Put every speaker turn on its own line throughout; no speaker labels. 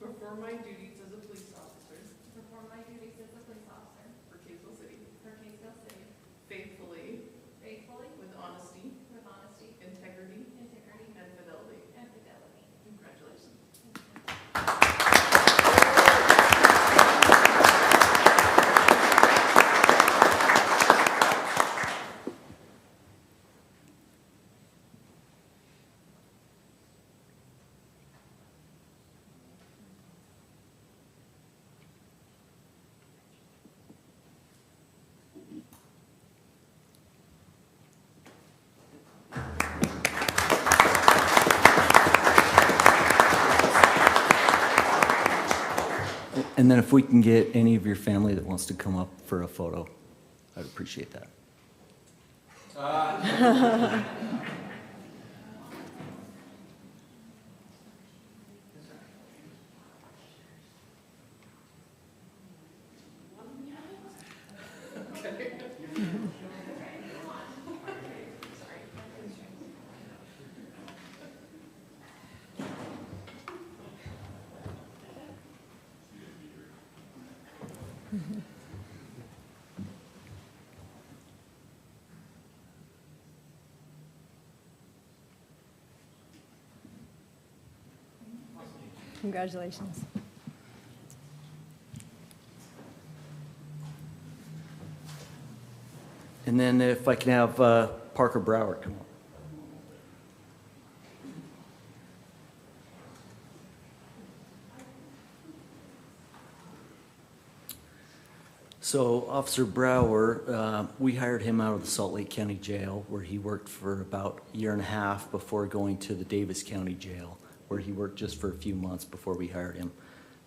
perform my duties as a police officer
to perform my duties as a police officer
for Kaysville City
for Kaysville City
faithfully,
faithfully,
with honesty,
with honesty,
integrity,
integrity,
and fidelity.
and fidelity.
Congratulations.
And then if we can get any of your family that wants to come up for a photo, I'd appreciate that.
Congratulations.
And then if I can have uh, Parker Brower come up. So Officer Brower, uh, we hired him out of the Salt Lake County Jail, where he worked for about a year and a half before going to the Davis County Jail, where he worked just for a few months before we hired him.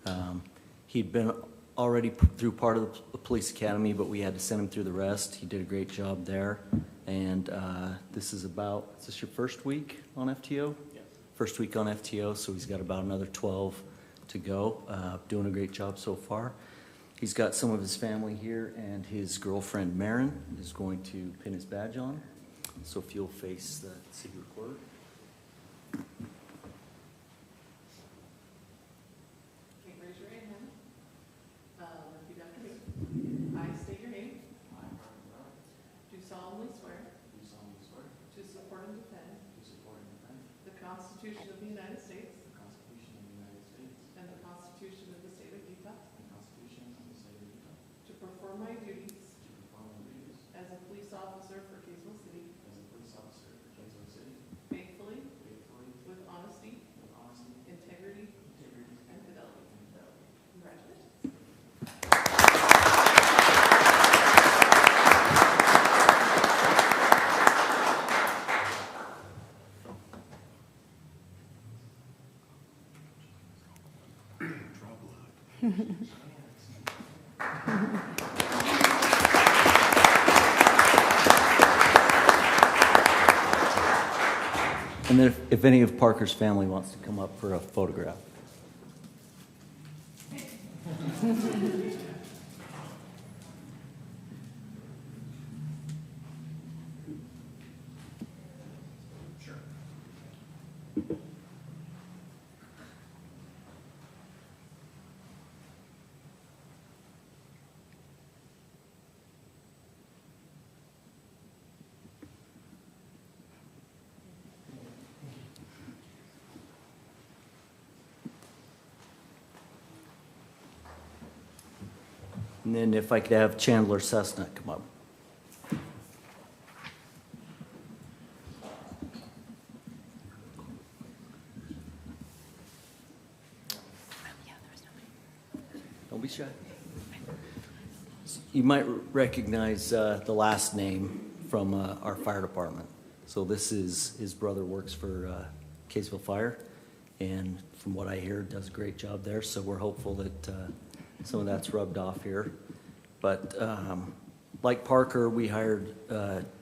Um, He'd been already p- through part of the p- police academy, but we had to send him through the rest. He did a great job there. And uh, this is about, is this your first week on FTO? Yes. First week on FTO, so he's got about another 12 to go. Uh, Doing a great job so far. He's got some of his family here, and his girlfriend Marin is going to pin his badge on. So if you'll face the city recorder.
Okay, raise your right hand. Uh, Repeat after me. I state your name.
I, Brian Brown,
Do solemnly swear
do solemnly swear to
to support and defend
support and defend
the Constitution of the United States
the Constitution of the United States
and the Constitution of the State of Utah,
and the Constitution of the State of Utah,
to perform my duties
to perform my duties
as a police officer for Kaysville City
as a police officer for Kansas City
faithfully,
faithfully,
with honesty,
with honesty,
integrity,
integrity, and
and fidelity. Congratulations.
And then if- if any of Parker's family wants to come up for a photograph. And then if I could have Chandler Cessna come up. Don't be shy. You might recognize uh, the last name from uh, our fire department. So this is, his brother works for uh, Kaysville Fire, and from what I hear, does a great job there. So we're hopeful that uh, some of that's rubbed off here. But um, like Parker, we hired uh,